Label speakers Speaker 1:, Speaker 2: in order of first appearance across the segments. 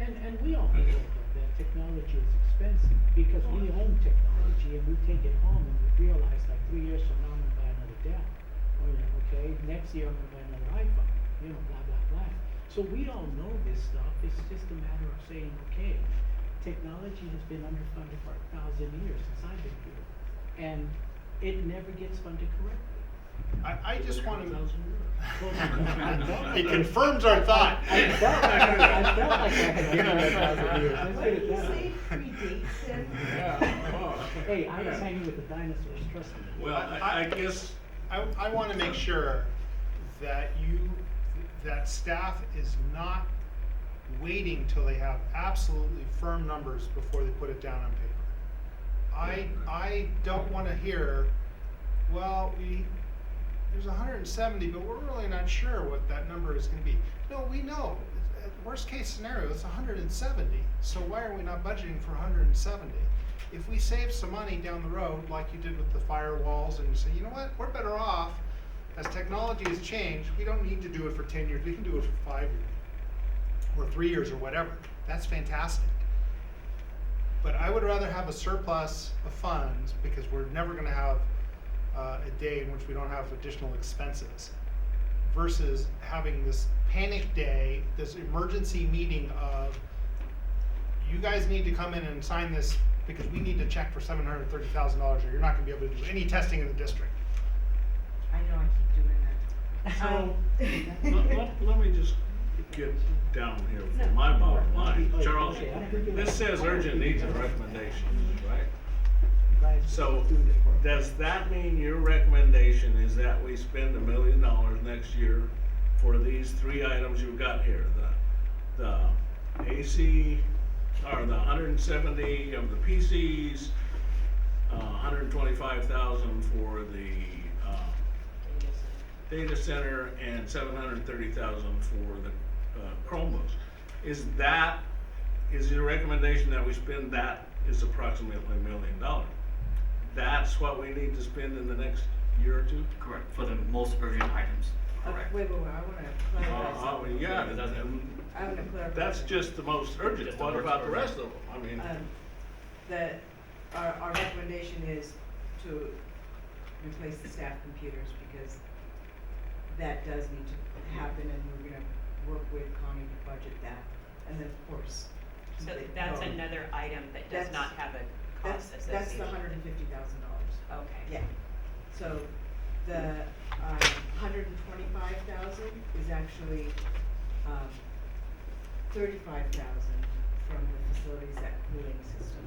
Speaker 1: and we all know that, that technology is expensive, because we own technology and we take it home and we realize like three years from now, I'm gonna buy another Dell. Or, you know, okay, next year I'm gonna buy another iPhone, you know, blah, blah, blah. So we all know this stuff, it's just a matter of saying, okay, technology has been underfunded for a thousand years since I've been here. And it never gets funded correctly.
Speaker 2: I, I just want to.
Speaker 1: It
Speaker 2: It confirms our thought.
Speaker 1: I felt like I- I felt like I had given it a thousand years. Let's
Speaker 3: When
Speaker 1: get it
Speaker 3: you
Speaker 1: down.
Speaker 3: say predates him.
Speaker 4: Yeah.
Speaker 1: Hey, I was hanging with the dinosaurs, trust me.
Speaker 4: Well, I, I guess,
Speaker 2: I, I want to make sure that you, that staff is not waiting till they have absolutely firm numbers before they put it down on paper. I, I don't want to hear, well, we, there's hundred and seventy, but we're really not sure what that number is gonna be. No, we know, Uh, worst case scenario, it's hundred and seventy, so why are we not budgeting for hundred and seventy? If we save some money down the road, like you did with the firewalls, and you say, you know what, we're better off, as technology has changed, we don't need to do it for ten years, we can do it for five years, or three years, or whatever, that's fantastic. But I would rather have a surplus of funds, because we're never gonna have uh, a day in which we don't have additional expenses versus having this panic day, this emergency meeting of you guys need to come in and sign this because we need to check for seven hundred thirty thousand dollars or you're not gonna be able to do any testing in the district.
Speaker 3: I know, I keep doing that. Um,
Speaker 1: So,
Speaker 4: let, let, let me just get down here with my bottom line. Charles, this says urgent needs and recommendations, right? So, does that mean your recommendation is that we spend a million dollars next year for these three items you've got here? The, the AC, or the hundred and seventy of the PCs, uh, hundred and twenty-five thousand for the, uh, data center and seven hundred and thirty thousand for the, uh, Chromebooks. Is that, is your recommendation that we spend that is approximately a million dollars? That's what we need to spend in the next year or two?
Speaker 5: Correct, for the most urgent items,
Speaker 3: Uh,
Speaker 5: correct.
Speaker 3: Wait, wait, wait, I wanna
Speaker 4: Uh,
Speaker 3: clarify
Speaker 4: uh,
Speaker 3: something.
Speaker 4: yeah,
Speaker 5: Because that's- um,
Speaker 3: I wanna clarify.
Speaker 4: that's
Speaker 3: something.
Speaker 4: just the most urgent,
Speaker 5: Just the
Speaker 4: what
Speaker 5: most
Speaker 4: about the rest of
Speaker 5: urgent.
Speaker 4: them? I mean,
Speaker 3: Um, that our, our recommendation is to replace the staff computers because that does need to happen and we're gonna work with Connie to budget that. And then, of course. keep
Speaker 6: So
Speaker 3: it
Speaker 6: that's
Speaker 3: going.
Speaker 6: another item that does
Speaker 3: That's-
Speaker 6: not have a
Speaker 3: That's,
Speaker 6: cost associated.
Speaker 3: that's the hundred and fifty thousand dollars.
Speaker 6: Okay.
Speaker 3: Yeah, so the um, hundred and twenty-five thousand is actually um, thirty-five thousand from the facilities at cooling system.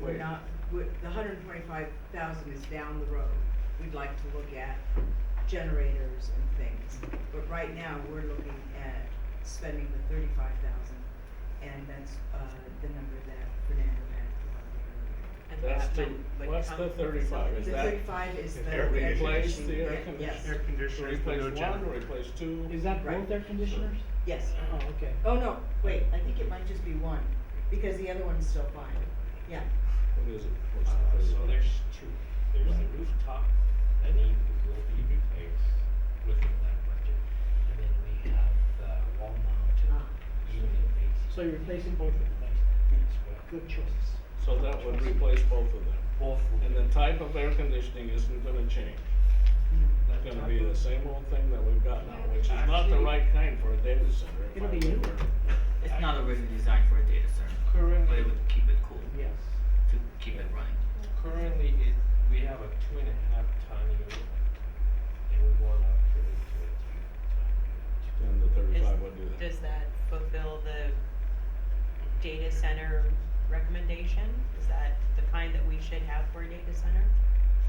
Speaker 3: We're
Speaker 4: Wait.
Speaker 3: not, we the hundred and twenty-five thousand is down the road. We'd like to look at generators and things, but right now, we're looking at spending the thirty-five thousand, and that's uh, the number that Fernando had provided earlier.
Speaker 6: And
Speaker 7: That's
Speaker 6: that
Speaker 7: the-
Speaker 6: one would
Speaker 7: what's
Speaker 6: come
Speaker 7: the
Speaker 6: from
Speaker 7: 35? Is
Speaker 3: The
Speaker 7: that-
Speaker 3: thirty-five is the.
Speaker 7: Air
Speaker 3: air
Speaker 7: replace
Speaker 3: conditioning.
Speaker 7: the air
Speaker 3: Yeah, yes.
Speaker 7: conditioner?
Speaker 2: conditioners
Speaker 7: Replace one, replace two?
Speaker 1: Is that
Speaker 3: Right.
Speaker 1: both air conditioners?
Speaker 3: Yes,
Speaker 1: Oh, okay.
Speaker 3: oh no, wait, I think it might just be one, because the other one's still fine, yeah.
Speaker 7: What is it? What's
Speaker 8: Uh,
Speaker 7: the third
Speaker 8: so
Speaker 7: one?
Speaker 8: there's two. There's the rooftop that need, will be replaced within that budget, and then we have uh, the wall mounted
Speaker 3: Ah.
Speaker 8: unit AC.
Speaker 1: So you're replacing both of them, thanks. Good choice.
Speaker 7: So that would replace both of them.
Speaker 8: Both will
Speaker 7: And
Speaker 8: be.
Speaker 7: the type of air conditioning isn't gonna change. It's gonna be the same old thing that we've got now, which is not the
Speaker 8: Actually-
Speaker 7: right kind for a data center. if
Speaker 1: It'll
Speaker 7: I
Speaker 1: be
Speaker 7: were-
Speaker 1: newer.
Speaker 8: I-
Speaker 5: It's not originally designed for a data center,
Speaker 8: Current-
Speaker 5: but it would keep it cool,
Speaker 1: Yes.
Speaker 5: to keep it running.
Speaker 8: Currently, it, we have a two and a half ton unit, and we want to upgrade it to a three ton unit.
Speaker 7: And the
Speaker 6: Is-
Speaker 7: thirty-five would do that.
Speaker 6: Does that fulfill the data center recommendation? Is that the kind that we should have for a data center?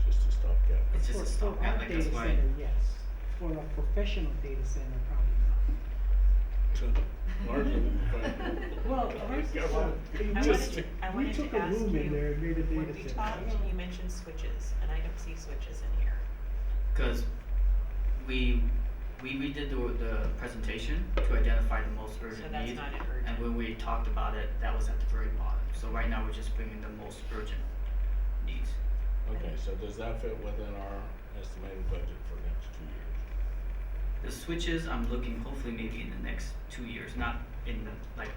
Speaker 7: It's Just a stopgap.
Speaker 5: It's just
Speaker 1: For-
Speaker 5: a stopgap, like that's
Speaker 1: For our
Speaker 5: why.
Speaker 1: data center, yes. For a professional data center, probably
Speaker 7: Largely, but-
Speaker 1: not. Well, ours is, uh,
Speaker 6: I
Speaker 1: we-
Speaker 6: wanted
Speaker 7: Just
Speaker 6: to,
Speaker 7: to-
Speaker 6: I
Speaker 1: we
Speaker 6: wanted
Speaker 1: took
Speaker 6: to
Speaker 1: a
Speaker 6: ask you,
Speaker 1: room in there and made a
Speaker 6: when
Speaker 1: data
Speaker 6: we
Speaker 1: center.
Speaker 6: talked, you mentioned switches, and I don't see switches in here.
Speaker 5: Because we, we redid the, the presentation to identify the most urgent
Speaker 6: So that's
Speaker 5: need.
Speaker 6: not an
Speaker 5: And
Speaker 6: urgent.
Speaker 5: when we talked about it, that was at the very bottom. So right now, we're just bringing the most urgent needs.
Speaker 7: Okay, so does that fit within our estimated budget for next two years?
Speaker 5: The switches, I'm looking hopefully maybe in the next two years, not in the, like,